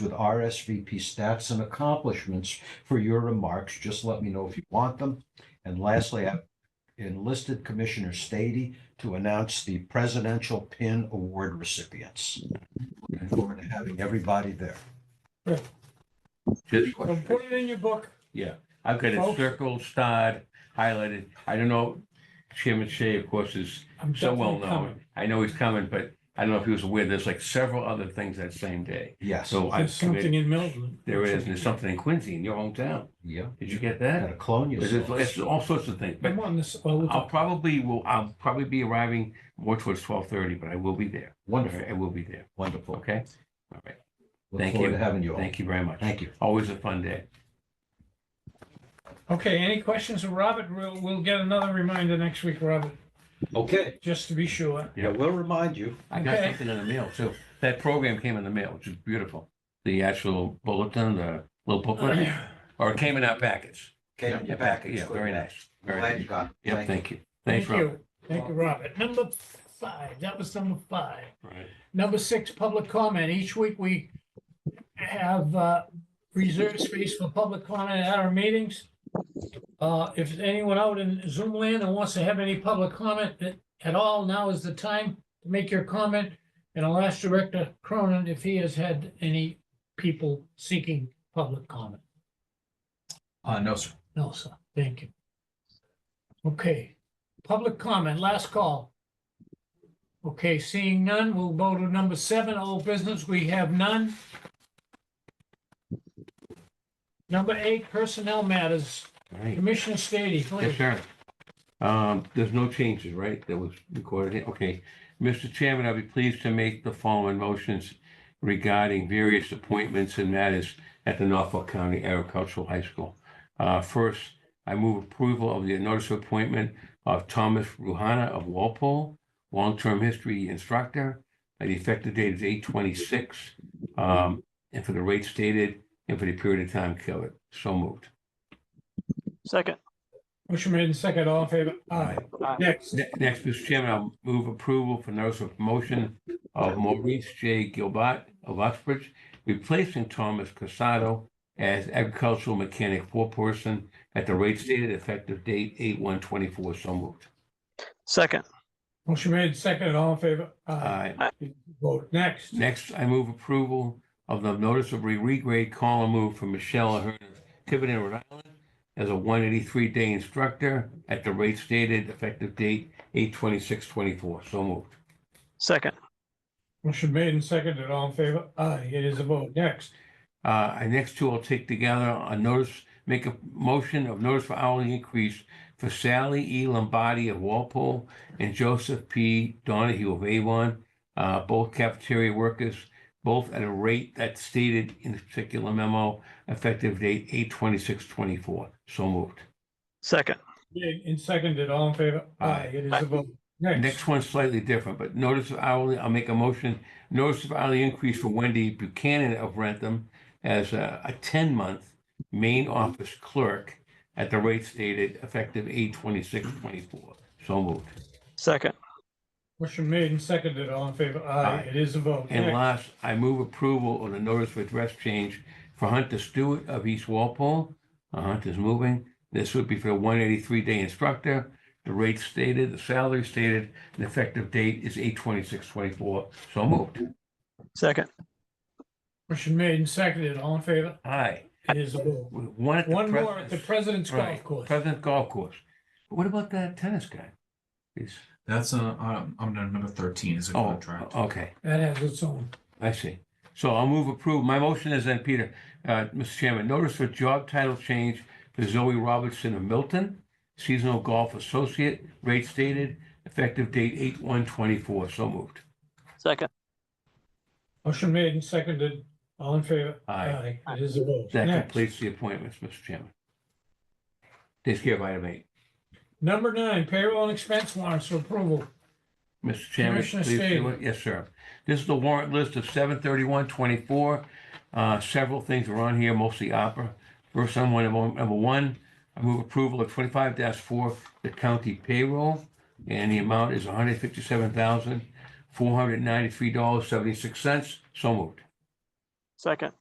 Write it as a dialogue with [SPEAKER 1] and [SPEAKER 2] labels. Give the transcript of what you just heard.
[SPEAKER 1] with RSVP stats and accomplishments for your remarks. Just let me know if you want them. And lastly, I've enlisted Commissioner Stady to announce the Presidential Pin Award recipients. Looking forward to having everybody there.
[SPEAKER 2] Just,
[SPEAKER 3] Don't put it in your book.
[SPEAKER 2] yeah, I've got it
[SPEAKER 3] Folks.
[SPEAKER 2] circled, starred, highlighted. I don't know, Chairman Shea, of course, is
[SPEAKER 3] I'm
[SPEAKER 2] so well
[SPEAKER 3] definitely coming.
[SPEAKER 2] known. I know he's coming, but I don't know if he was aware, there's like several other things that same day.
[SPEAKER 1] Yes,
[SPEAKER 2] So I've
[SPEAKER 3] There's something
[SPEAKER 2] committed,
[SPEAKER 3] in Milton.
[SPEAKER 2] there is, and there's something in Quincy, in your hometown.
[SPEAKER 1] yeah,
[SPEAKER 2] Did you get
[SPEAKER 1] gotta
[SPEAKER 2] that?
[SPEAKER 1] clone
[SPEAKER 2] There's, it's
[SPEAKER 1] yourself.
[SPEAKER 2] all sorts of things, but
[SPEAKER 3] I'm on this all the
[SPEAKER 2] I'll
[SPEAKER 3] time.
[SPEAKER 2] probably will, I'll probably be arriving more towards twelve thirty, but I will be there. All
[SPEAKER 1] Wonderful,
[SPEAKER 2] right, I will be there,
[SPEAKER 1] wonderful.
[SPEAKER 2] okay? All right,
[SPEAKER 1] Look
[SPEAKER 2] Thank
[SPEAKER 1] forward
[SPEAKER 2] you.
[SPEAKER 1] to having you all.
[SPEAKER 2] thank you very much.
[SPEAKER 1] Thank you.
[SPEAKER 2] Always a fun day.
[SPEAKER 3] Okay, any questions of Robert? We'll, we'll get another reminder next week, Robert,
[SPEAKER 1] Okay,
[SPEAKER 3] just to be sure.
[SPEAKER 1] yeah, we'll remind you.
[SPEAKER 2] I got
[SPEAKER 3] Okay.
[SPEAKER 2] something in the mail too. That program came in the mail, which is beautiful. The actual bulletin, the
[SPEAKER 3] Oh,
[SPEAKER 2] little booklet, or it came in our packets.
[SPEAKER 1] Okay,
[SPEAKER 2] Yeah,
[SPEAKER 1] you're back.
[SPEAKER 2] Yeah, very nice. Very
[SPEAKER 1] Glad
[SPEAKER 2] nice.
[SPEAKER 1] you got it.
[SPEAKER 2] Yeah,
[SPEAKER 1] Thank you.
[SPEAKER 2] thank you. Thanks,
[SPEAKER 3] Thank
[SPEAKER 2] Robert.
[SPEAKER 3] you. Thank you, Robert. Number five, that was number five.
[SPEAKER 2] Right.
[SPEAKER 3] Number six, public comment. Each week we have uh, reserved space for public comment at our meetings. Uh, If anyone out in Zoom land and wants to have any public comment at- at all, now is the time to make your comment. And I'll ask Director Cronin if he has had any people seeking public comment.
[SPEAKER 4] Uh, no, sir.
[SPEAKER 3] No, sir. Thank you. Okay, public comment, last call. Okay, seeing none, we'll go to number seven, old business. We have none. Number eight, personnel matters.
[SPEAKER 2] All right.
[SPEAKER 3] Commissioner Stady,
[SPEAKER 2] Yes,
[SPEAKER 3] please.
[SPEAKER 2] sir. Um, there's no changes, right? That was recorded. here? Okay. Mr. Chairman, I'll be pleased to make the following motions regarding various appointments and matters at the Norfolk County Agricultural High School. Uh, first, I move approval of the notice of appointment of Thomas Ruhana of Walpole, long-term history instructor. Uh, The effective date is eight twenty-six, um, and for the rate stated and for the period of time covered. So moved.
[SPEAKER 5] Second,
[SPEAKER 3] Motion made in second, all in favor? Aye.
[SPEAKER 5] Aye.
[SPEAKER 3] Next,
[SPEAKER 2] Ne- Next, Mr. Chairman, I'll move approval for notice of promotion of Maurice J. Gilbert of Uxbridge, replacing Thomas Casado as agricultural mechanic foreperson at the rate stated effective date eight one twenty-four. So moved.
[SPEAKER 5] second,
[SPEAKER 3] motion made in second, all in favor?
[SPEAKER 2] Aye.
[SPEAKER 3] Vote next.
[SPEAKER 2] Next, I move approval of the notice of re- regrade column move for Michelle Ahern of Tiverton, Rhode Island as a one eighty-three day instructor at the rate stated effective date eight twenty-six twenty-four. So moved.
[SPEAKER 5] second,
[SPEAKER 3] Motion made in second, all in favor? Aye, it is a vote. Next,
[SPEAKER 2] Uh, our next two I'll take together, a notice, make a motion of notice for hourly increase for Sally E. Lombardi of Walpole and Joseph P. Donahue of Avon, uh, both cafeteria workers, both at a rate that's stated in the particular memo, effective date eight twenty-six twenty-four. So moved.
[SPEAKER 5] second,
[SPEAKER 3] made in second, all in favor? Aye, it is a vote. Next.
[SPEAKER 2] Next one's slightly different, but notice of hourly, I'll make a motion, notice of hourly increase for Wendy Buchanan of Rentham as a, a ten-month main office clerk at the rate stated effective eight twenty-six twenty-four. So moved.
[SPEAKER 5] second,
[SPEAKER 3] Motion made and seconded, all in favor? Aye,
[SPEAKER 2] Aye.
[SPEAKER 3] it is a vote.
[SPEAKER 2] And
[SPEAKER 3] Next.
[SPEAKER 2] last, I move approval of the notice of address change for Hunter Stewart of East Walpole. Uh, Hunter's moving. This would be for a one eighty-three day instructor. The rate stated, the salary stated, the effective date is eight twenty-six twenty-four. So moved.
[SPEAKER 5] second,
[SPEAKER 3] Motion made and seconded, all in favor?
[SPEAKER 2] Aye.
[SPEAKER 3] It is a vote.
[SPEAKER 2] One at the
[SPEAKER 3] One more at the President's
[SPEAKER 2] President's-
[SPEAKER 3] Golf
[SPEAKER 2] right,
[SPEAKER 3] Course.
[SPEAKER 2] President's Golf Course. But What about that tennis guy? He's,
[SPEAKER 4] That's uh, um, I'm on number thirteen is a
[SPEAKER 2] oh,
[SPEAKER 4] contract.
[SPEAKER 2] okay,
[SPEAKER 3] That has its own.
[SPEAKER 2] I see. So I'll move approve. My motion is then, Peter, uh, Mr. Chairman, notice for job title change for Zoe Robertson of Milton, seasonal golf associate, rate stated, effective date eight one twenty-four. So moved.
[SPEAKER 5] second,
[SPEAKER 3] Motion made and seconded, all in favor?
[SPEAKER 2] Aye.
[SPEAKER 3] It is a vote.
[SPEAKER 2] That
[SPEAKER 3] Uh, Next.
[SPEAKER 2] completes the appointments, Mr. Chairman. Takes care of item eight.
[SPEAKER 3] Number nine, payroll and expense warrants for approval.
[SPEAKER 2] Mr. Chairman,
[SPEAKER 3] Commissioner
[SPEAKER 2] please do
[SPEAKER 3] Stady.
[SPEAKER 2] it. Yes, sir. This is the warrant list of seven thirty-one twenty-four. Uh, several things are on here, mostly opera. First on one, number number one, I move approval of twenty-five four, the county payroll. And the amount is hundred fifty-seven thousand, four hundred ninety-three dollars, seventy-six cents. So moved.
[SPEAKER 5] second,